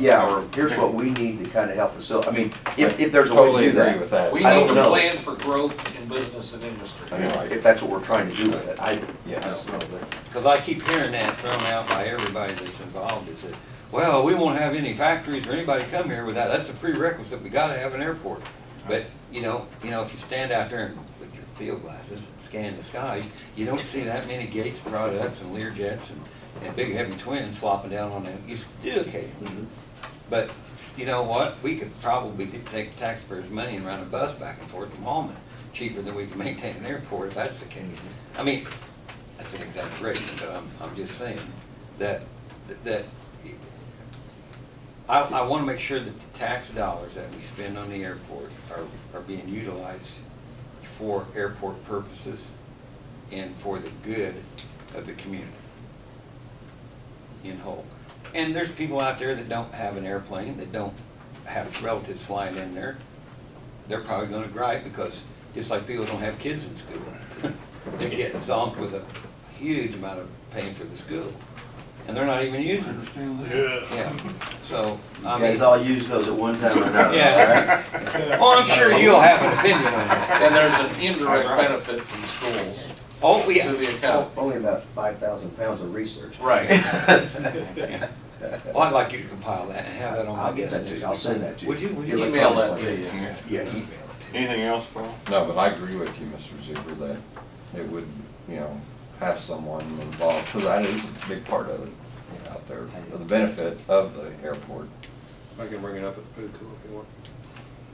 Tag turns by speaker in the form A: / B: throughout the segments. A: yeah, or here's what we need to kind of help facilitate, I mean, if, if there's a way
B: Totally
A: to do
B: agree
A: that.
B: with that.
C: We
A: I don't
C: need a
A: know.
C: plan for growth in business and industry.
A: I mean, if that's what we're trying to do with it, I, I
B: Yes.
A: don't know, but,
D: Because I keep hearing that thrown out by everybody that's involved, is that, well, we won't have any factories or anybody come here without, that's a prerequisite, we gotta have an airport. But, you know, you know, if you stand out there and with your field glasses, scan the skies, you don't see that many Gates products and Learjets and, and big heavy twins flopping down on that, you s- do occasionally. But, you know what, we could probably could take taxpayers' money and run a bus back and forth from Holman, cheaper than we can maintain an airport, if that's the case. I mean, that's an exaggeration, but I'm, I'm just saying that, that, I, I wanna make sure that the tax dollars that we spend on the airport are, are being utilized for airport purposes and for the good of the community in whole. And there's people out there that don't have an airplane, that don't have relatives flying in there. They're probably gonna gripe because, just like people don't have kids in school. They get zonked with a huge amount of pain for the school, and they're not even using it. Yeah, so, I
A: you
D: mean,
A: guys all use those at one time or another, all right?
D: yeah. Well, I'm sure you'll have an opinion on that.
C: And there's an indirect benefit from schools
D: Oh,
C: to
D: yeah.
C: the account.
A: Only about five thousand pounds of research.
C: Right.
D: Yeah. Well, I'd like you to compile that and have that on my
A: I'll get
D: guest.
A: that to you. I'll send that to you.
D: Would you, would you?
C: Email that to you.
D: Yeah, email
E: Anything else, Paul?
B: No, but I agree with you, Mr. Zuber, that it would, you know, have someone involved, because that is a big part of it out there, for the benefit of the airport.
F: I can bring it up at food court if you want.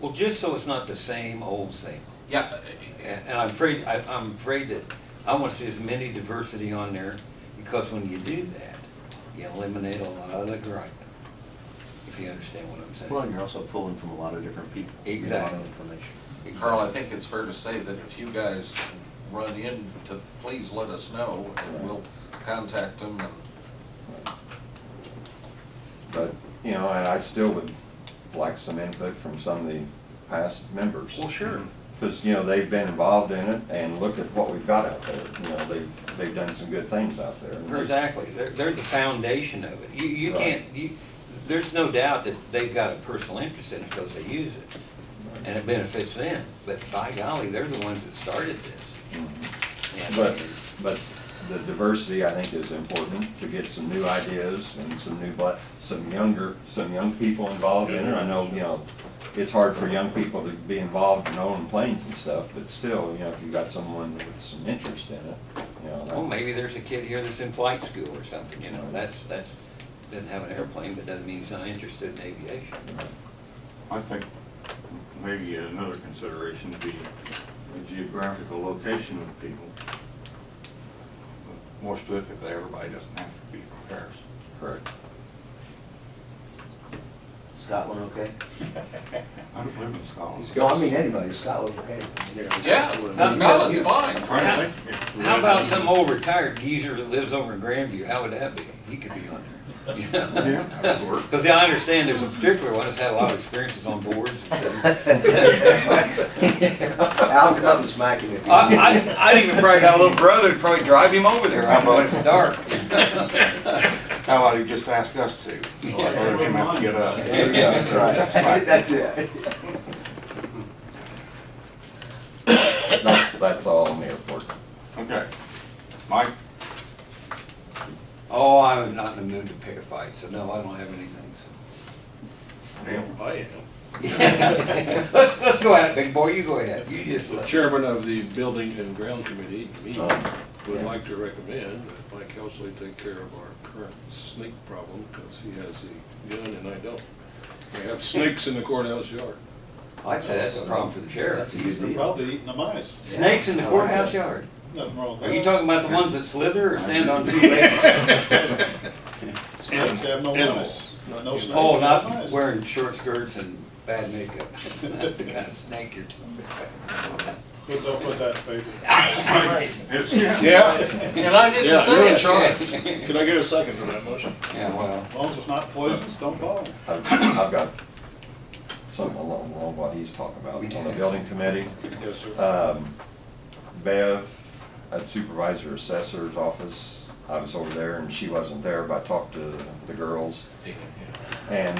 D: Well, just so it's not the same old same.
C: Yeah,
D: And and I'm afraid, I, I'm afraid that, I wanna see as many diversity on there, because when you do that, you eliminate a lot of the gripe. If you understand what I'm saying.
A: Well, and you're also pulling from a lot of different people. you get a lot of
D: Exactly.
A: information.
C: Carl, I think it's fair to say that if you guys run into, please let us know and we'll contact them.
B: But, you know, and I still would like some input from some of the past members.
D: Well, sure.
B: Because, you know, they've been involved in it, and look at what we've got out there, you know, they've, they've done some good things out there.
D: Exactly, they're, they're the foundation of it. You, you
B: Right.
D: can't, you, there's no doubt that they've got a personal interest in it because they use it, and it benefits them, but by golly, they're the ones that started this. And-
B: But, but the diversity, I think, is important to get some new ideas and some new, but, some younger, some young people involved in it. I know, you know, it's hard for young people to be involved in owning planes and stuff, but still, you know, if you got someone with some interest in it, you know. that-
D: Well, maybe there's a kid here that's in flight school or something, you know, that's, that's, doesn't have an airplane, but doesn't mean he's not interested in aviation.
E: I think maybe another consideration would be the geographical location of people. More specifically, everybody doesn't have to be from Paris.
B: Correct.
A: Scotland, okay?
E: I don't live in Scotland.
A: Well, I mean, anybody, Scotland, okay? You know, it's
C: Yeah,
A: just what it is.
C: no, it's fine.
E: I'm trying to think if-
D: How about some old retired geezer that lives over in Grandview, how would that be? He could be on there. You know?
E: Yeah, that would work.
D: Because I understand there's a particular one that's had a lot of experiences on boards. I,
A: I'll come smacking if you.
D: I, I'd even probably got a little brother to probably drive him over there, I know when it's dark.
E: How about you just ask us to? Or let him have to get up.
D: Yeah.
A: That's right. That's it.
B: That's, that's all on the airport.
E: Okay. Mike,
D: Oh, I'm not in the mood to pick a fight, so no, I don't have anything, so.
E: Neil,
F: I
D: Let's, let's go at it, big boy, you go ahead, you just
F: The
D: let.
F: chairman of the Building and Ground Committee, me,
B: Oh,
F: would
B: yeah.
F: like to recommend that Mike Helsley take care of our current snake problem, because he has the gun and I don't. We have snakes in the courthouse yard.
D: I'd say that's a problem for the sheriff.
G: They're probably eating the mice.
D: Snakes in the courthouse yard.
G: Nothing wrong with that.
D: Are you talking about the ones that slither or stand on two legs?
G: Snakes have no
F: Animals.
G: mice. No snakes
D: Oh,
G: have
D: not
G: mice.
D: wearing short skirts and bad makeup. That's not the kind of snake you're talking about.
G: But Don't put that in paper.
E: it's,
G: Yeah.
C: And I didn't
G: Yeah,
C: say
G: yeah.
C: it, Charlie.
G: Can I get a second to that motion?
D: Yeah, well,
G: As long as it's not poisonous, don't bother.
B: I've, I've got something along, along what he's talking about on the building committee.
F: Yes, sir.
B: Um, Bev at Supervisor Assessor's office, I was over there and she wasn't there, but I talked to the girls. And